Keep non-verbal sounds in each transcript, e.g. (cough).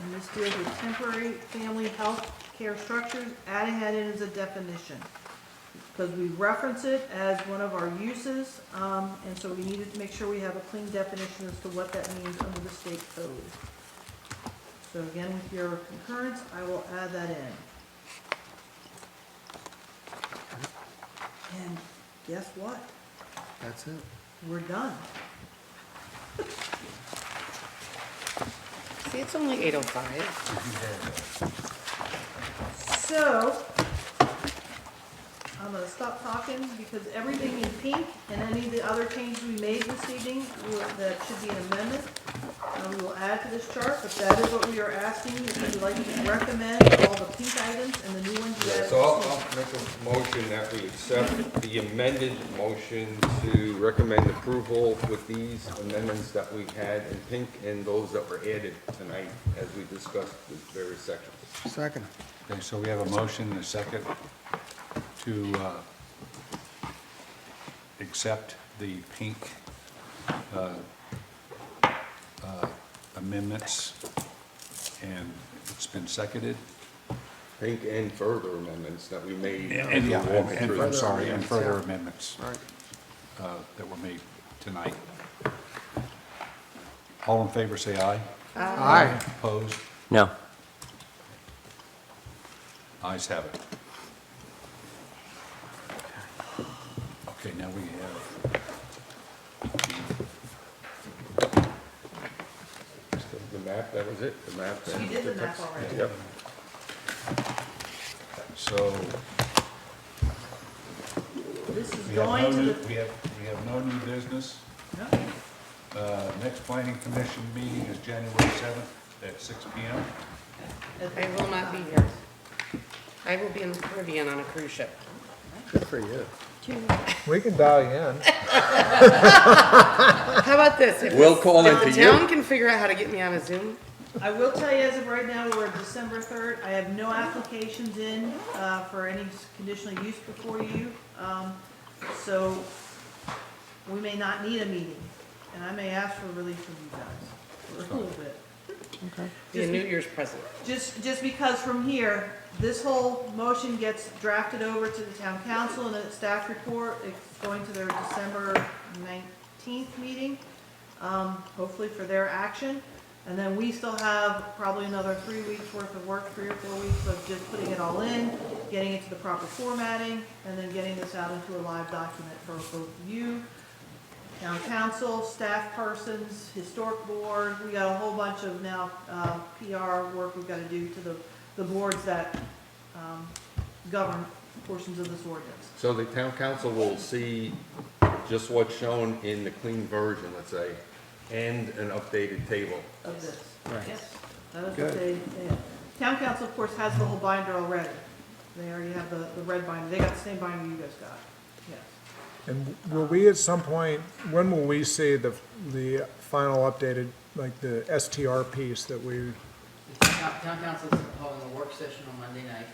ordinance deals with temporary family health care structures, adding that in as a definition. Because we reference it as one of our uses, um, and so we needed to make sure we have a clean definition as to what that means under the state code. So again, with your concurrence, I will add that in. And guess what? That's it. We're done. See, it's only eight oh five. So, I'm gonna stop talking because everything in pink and any of the other changes we made this evening, will- that should be an amendment. And we will add to this chart, but that is what we are asking, if you'd like to recommend all the pink items and the new ones you added. So I'll, this I'll evening. make a motion that we accept the amended motion to recommend approval with these amendments that we had in pink and those that were added tonight as we discussed the various sections. Second. Okay, so we have a motion and a second to uh, accept the pink uh, uh, amendments, and it's been seconded. Pink and further amendments that we made. And, yeah, Walk and- through. and- I'm sorry, and amendments, further yeah. amendments Right. uh, that were made tonight. All in favor, say aye. Uh, Aye. Opposed? No. Ayes have it. Okay, now we have, The map, that was it, the map. You and did the map text. already. Yep. so This is we have no going to new, the, we have, we have no new business. no, Uh, Next planning commission meeting is January 7th at 6 PM. at I the- will not be here. I will be in the Caribbean on a cruise ship. Good for (laughs) you. We can dial you in. How about this? If We'll call if in the for you. town can figure out how to get me on a Zoom, I will tell you, as of right now, we're at December third, I have no applications in, uh, for any s- conditional use before you, um, so we may not need a meeting, and I may ask for relief from you guys, for a little bit. be a New Year's present. Just, just because from here, this whole motion gets drafted over to the town council and the staff report, it's going to their December nineteenth meeting, um, hopefully for their action. And then we still have probably another three weeks worth of work, three or four weeks of just putting it all in, getting it to the proper formatting, and then getting this out into a live document for both of you, town council, staff persons, historic board, we got a whole bunch of now, uh, PR work we've gotta do to the, the boards that, um, govern portions of this ordinance. So the town council will see just what's shown in the clean version, let's say, and an updated table. of this. Right. Yes, that is what Good. they, they- town council, of course, has the whole binder already. They already have the, the red binder, they got the same binder you guys got, yes. And will we at some point, when will we see the, the final updated, like the STR piece that we, Town town council is holding a work session on Monday night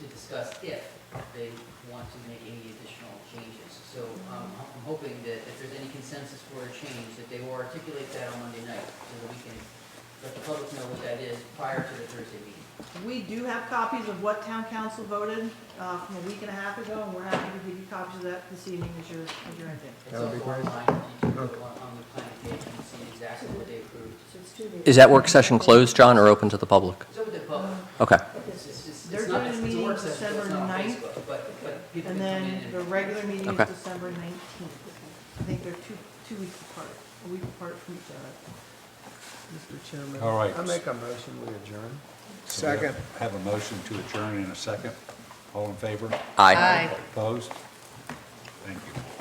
to discuss if they want to make any additional changes. So um, I'm hoping that if there's any consensus for a change, that they will articulate that on Monday night so that we can let the public know what that is prior to the Thursday meeting. We do have copies of what town council voted, uh, from a week and a half ago, and we're happy to give you copies of that this evening as your, as your ending. It's That would be also great. online, you can go on on the planning page and see exactly what they approved. Is that work session closed, John, or open to the public? It's over the public. Okay. It's- it's- it's They're not- doing a it's- it's meeting work session, so it's December not on 9th, Facebook, But, but people And can come in then and. the regular meeting is Okay. December nineteenth. I think they're two, two weeks apart, a week apart from each other. Mr. Chairman. All right. I make a motion, we adjourn. So we have- Second. Have a motion to adjourn in a second. All in favor? Aye. Aye. Opposed? Thank you.